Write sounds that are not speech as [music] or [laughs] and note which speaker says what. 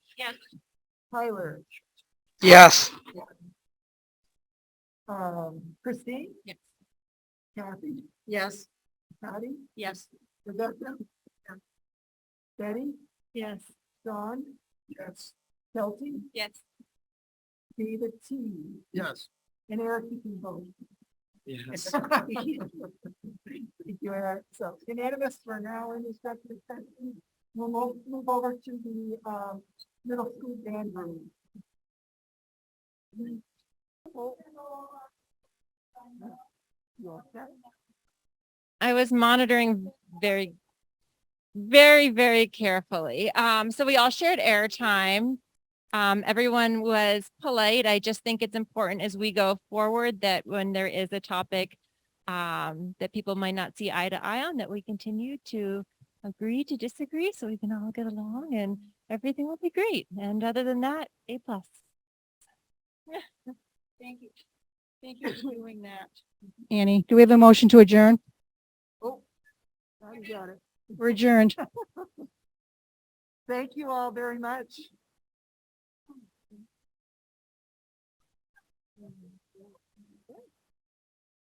Speaker 1: Tyler,
Speaker 2: Yes.
Speaker 1: um, Christine?
Speaker 3: Yes.
Speaker 1: Kathy,
Speaker 3: Yes.
Speaker 1: Patty,
Speaker 3: Yes.
Speaker 1: Rebecca? Betty,
Speaker 3: Yes.
Speaker 1: Don? Yes. Kelsey,
Speaker 3: Yes.
Speaker 1: David T,
Speaker 2: Yes.
Speaker 1: and Eric, you can vote. [laughs]
Speaker 2: Yes.
Speaker 1: Thank you, Eric. So unanimous for now in respect to the session. We'll mo- move over to the um, middle school band room. You all set?
Speaker 4: I was monitoring very, very, very carefully. Um, so we all shared airtime. Um, everyone was polite. I just think it's important as we go forward that when there is a topic um, that people might not see eye to eye on, that we continue to agree to disagree so we can all get along and everything will be great. And other than that, A plus.
Speaker 3: Thank you. Thank you for doing that.
Speaker 5: Annie, do we have a motion to adjourn?
Speaker 1: I got it.
Speaker 5: We're adjourned.
Speaker 1: Thank you all very much.